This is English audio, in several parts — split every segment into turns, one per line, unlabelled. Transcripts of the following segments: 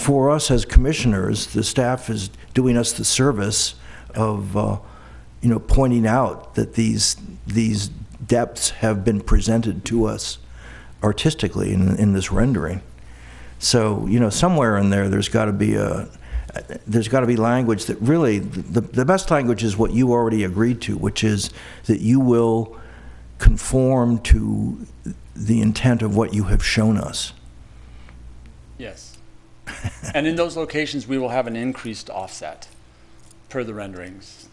for us as commissioners, the staff is doing us the service of, uh, you know, pointing out that these, these depths have been presented to us artistically in, in this rendering. So, you know, somewhere in there, there's got to be a, there's got to be language that really, the, the best language is what you already agreed to, which is that you will conform to the intent of what you have shown us.
Yes. And in those locations, we will have an increased offset per the renderings.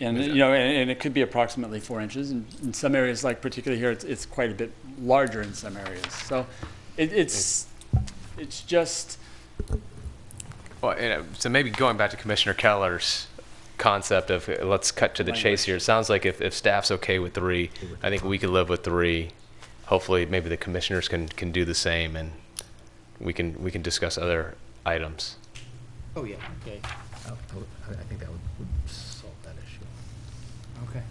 And, you know, and, and it could be approximately four inches. And in some areas, like particularly here, it's, it's quite a bit larger in some areas. So it, it's, it's just,
Well, you know, so maybe going back to Commissioner Keller's concept of uh, let's cut to the chase here. It sounds like if, if staff's okay with three, I think we could live with three. Hopefully, maybe the commissioners can, can do the same, and we can we can discuss other items.
Oh, yeah, okay. I I think that would would solve that issue.
Okay.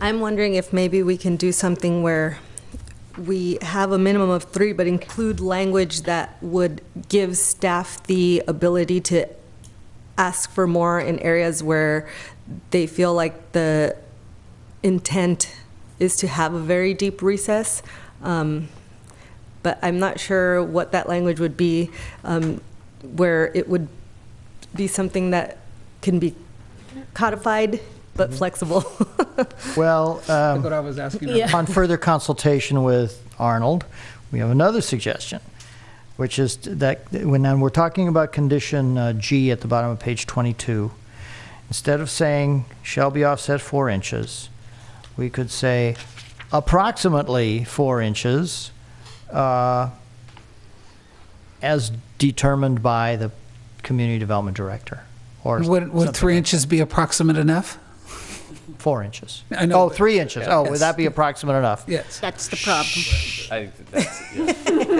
I'm wondering if maybe we can do something where we have a minimum of three, but include language that would give staff the ability to ask for more in areas where they feel like the intent is to have a very deep recess. Um, But I'm not sure what that language would be, um, where it would be something that can be codified but flexible.
Well, um,
What I was asking.
Yeah.
upon further consultation with Arnold, we have another suggestion, which is that when and we're talking about condition uh, G at the bottom of page 22, instead of saying shall be offset four inches, we could say approximately four inches uh, as determined by the community development director. Or
Would, would
something
three
like
inches be approximate enough?
Four inches.
I know,
Oh,
but-
three inches. Oh,
Yes.
would that be approximate enough?
Yes.
That's the problem.
I, that's,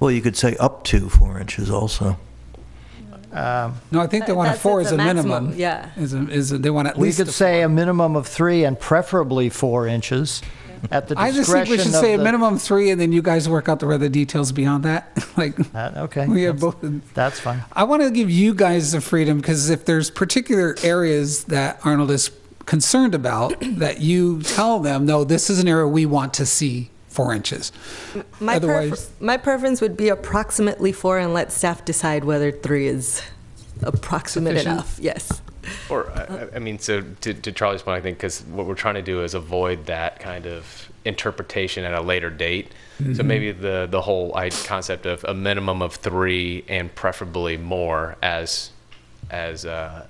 Well, you could say up to four inches also.
No, I think they want a
That's-
four
it's
as a
a maximum,
minimum.
yeah.
Is, a- is, a- they want at
We
least.
could
a-
say a minimum of three and preferably four inches at the
I just think we
discretion
should
of
say a
the-
minimum three and then you guys work out the other details beyond that. Like,
Uh, Okay.
we have
that's-
both. in-
That's fine.
I want to give you guys the freedom because if there's particular areas that Arnold is concerned about, that you tell them, no, this is an area we want to see four inches.
My, prefer-
Otherwise-
my preference would be approximately four and let staff decide whether three is approximate
Sufficient.
enough. Yes.
or I, I- I mean, so to, to Charlie's point, I think because what we're trying to do is avoid that kind of interpretation at a later date. So maybe the the whole I, concept of a minimum of three and preferably more as as uh,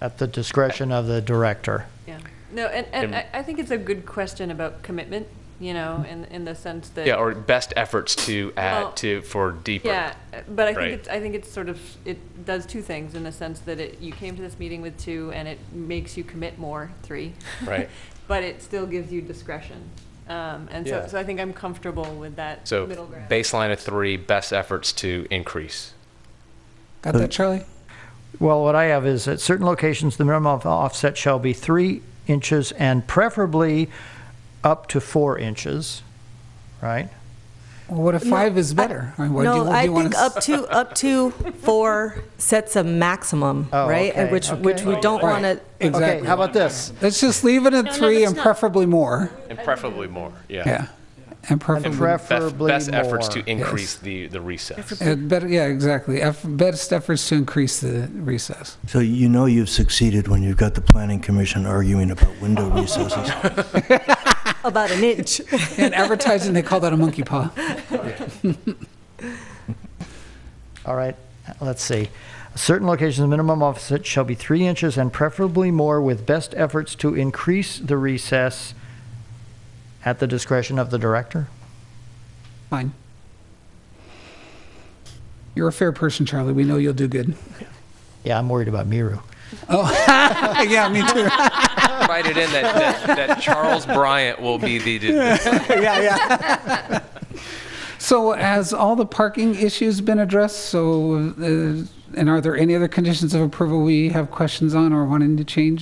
At the discretion of the director.
Yeah, no, and, and I,
And-
I think it's a good question about commitment, you know, in, in the sense that.
Yeah, or best efforts to add
Well,
to for deeper.
Yeah, uh, but I
Right.
think it's, I think it's sort of, it does two things in the sense that it, you came to this meeting with two and it makes you commit more, three.
Right.
But it still gives you discretion. Um, and
Yeah.
so, so I think I'm comfortable with that
So
middle ground.
baseline of three, best efforts to increase.
Got that, Charlie?
Well, what I have is at certain locations, the minimum of offset shall be three inches and preferably up to four inches, right?
Well, what if five is better? I mean, what do you-
no,
what do
I
you wanna
think
s-
up to up to four sets a maximum,
Oh,
right?
okay,
And
Oh,
which which we
okay.
don't
Right.
want to.
Okay,
Exactly.
how about this?
Let's just leave it at
No, no,
three
that's
and
not-
preferably more.
And preferably more, yeah.
Yeah. And
And
preferably,
Best,
preferably
best efforts
more.
to increase the, the recess.
uh, better, yeah, exactly. Eff- Best efforts to increase the recess.
So you know you've succeeded when you've got the planning commission arguing about window recesses.
About an inch.
In advertising, they call that a monkey paw.
All right, let's see. Certain locations, the minimum offset shall be three inches and preferably more with best efforts to increase the recess at the discretion of the director.
Fine. You're a fair person, Charlie. We know you'll do good.
Yeah, I'm worried about Miru.
yeah, me too.
Write it in that, that, that Charles Bryant will be the,
yeah, yeah. so, has all the parking issues been addressed? So, uh, and are there any other conditions of approval we have questions on or wanting to change?